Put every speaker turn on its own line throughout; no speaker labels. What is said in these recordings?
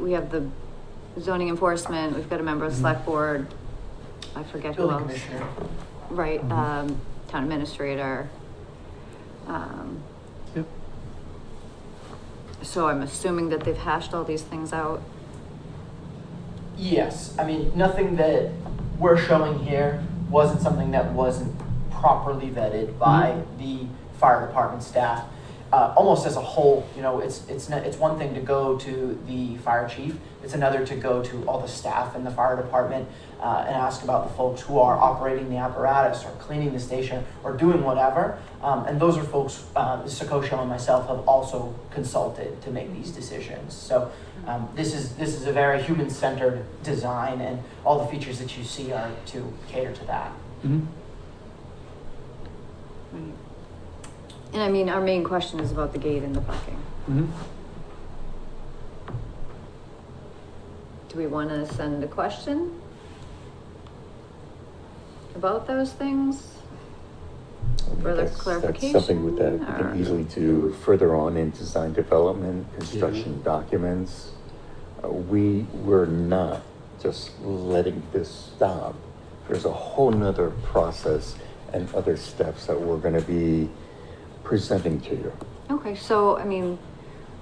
we have the zoning enforcement, we've got a member of the select board. I forget who
Building
else.
commissioner.
Right,
Mhm.
um, town administrator. Um,
Yep.
so I'm assuming that they've hashed all these things out.
Yes, I mean, nothing that we're showing here wasn't something that wasn't properly vetted by the fire department staff. Uh, almost as a whole, you know, it's, it's, not- it's one thing to go to the fire chief, it's another to go to all the staff in the fire department uh, and ask about the folks who are operating the apparatus or cleaning the station or doing whatever. Um, and those are folks, uh, Sakosha and myself have also consulted to make these decisions. So um, this is this is a very human-centered design, and all the features that you see are to cater to that.
Mhm.
And I mean, our main question is about the gate and the parking.
Mhm.
Do we wanna send a question? About those things?
I think
Further
that's- That's something with that, we
clarification,
can easily do further on in design development, construction documents. Uh, We, were not just letting this stop. There's a whole nother process and other steps that we're gonna be presenting to you.
Okay, so, I mean,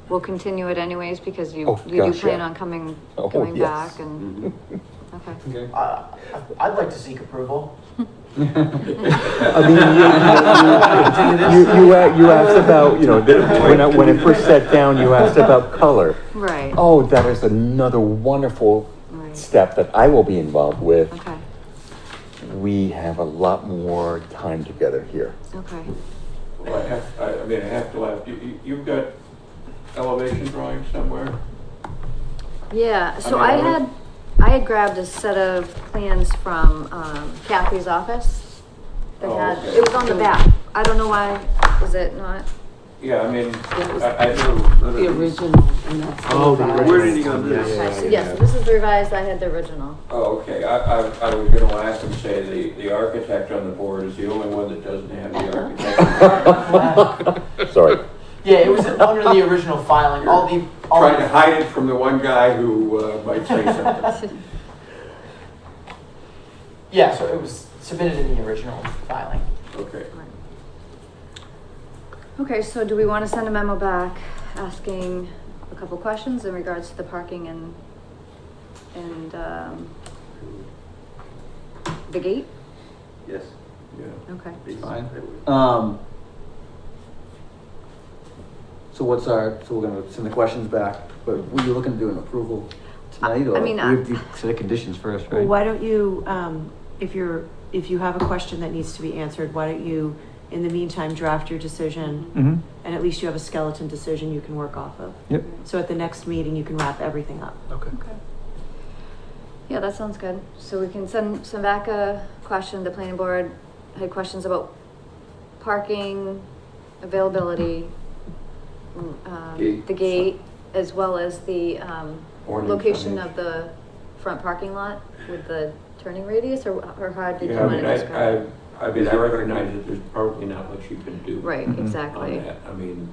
we'll continue it anyways because you,
Oh,
you do
gosh,
plan
yeah.
on coming,
Oh,
coming
yes.
back and, okay.
Okay.
Uh, I'd like to seek approval.
I mean, you- you, you, you, a- you asked about, you know, the- when I, when I first sat down, you asked about color.
Right.
Oh, that is another wonderful
Right.
step that I will be involved with.
Okay,
We have a lot more time together here.
okay.
Well, I have, I, I mean, I have to laugh. You, you, you've got elevation drawings somewhere?
Yeah, so
mean,
I
I would-
had, I had grabbed a set of plans from um, Kathy's office. That
Oh,
had,
okay.
it was on the back. I don't know why, is it not?
Yeah, I mean,
That was
I, I
The
know. that-
original, and that's the
Oh, the
revised.
Where did he go this?
Okay, so yes, this is the revised, I had the original.
Oh, okay, I, I, I was gonna laugh and say the, the architect on the board is the only one that doesn't have the
Oh.
architect.
Sorry.
Yeah, it was under the original filing. All the all
Trying to
the-
hide it from the one guy who, uh, might say something.
yeah, so it was submitted in the original filing.
Okay.
Okay, so do we want to send a memo back asking a couple questions in regards to the parking and, and, um, the gate?
Yes,
Yeah.
Okay.
please.
Fine.
I would.
Um. So what's our, so we're gonna send the questions back, but were you looking to do an approval tonight or?
I mean,
We have to set the conditions first,
Well,
right?
why don't you, um, if you're, if you have a question that needs to be answered, why don't you, in the meantime, draft your decision?
Mm-hmm,
And at least you have a skeleton decision you can work off of.
yep.
So at the next meeting, you can wrap everything up.
Okay.
Okay. Yeah, that sounds good. So we can send, send back a question, the planning board had questions about parking, availability, mm, um,
Gate.
the gate, as well as the, um,
Warning
location
signage.
of the front parking lot with the turning radius, or, or how did you
Yeah, I
want to
mean, I,
describe? it?
I, I mean, I recognize that there's probably not much you can do.
Right,
Mhm.
exactly.
on that. I mean,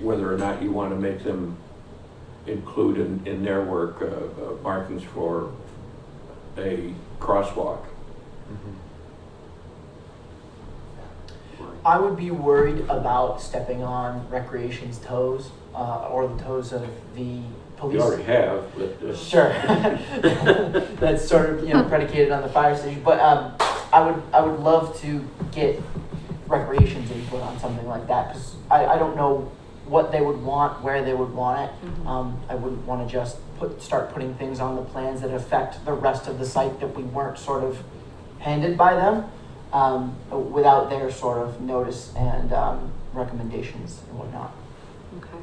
whether or not you want to make them include in, in their work, uh, uh, markings for a crosswalk.
I would be worried about stepping on recreation's toes uh, or the toes of the police.
You already have, but. uh,
Sure. That's sort of, you know, predicated on the fire station, but, um, I would, I would love to get recreation's input on something like that, cause I, I don't know what they would want, where they would want it.
Mhm.
Um, I wouldn't wanna just put, start putting things on the plans that affect the rest of the site that we weren't sort of handed by them, um, without their sort of notice and, um, recommendations and whatnot.
Okay.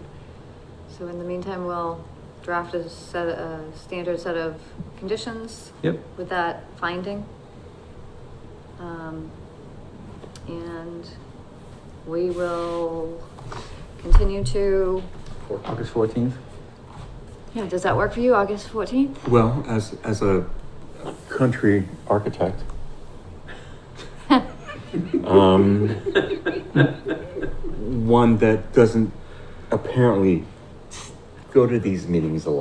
So in the meantime, we'll draft a set, a standard set of conditions.
Yep.
With that finding. Um, and we will continue to,
August fourteenth?
yeah, does that work for you, August fourteenth?
Well, as, as a country architect, um, one that doesn't apparently go to these meetings a lot.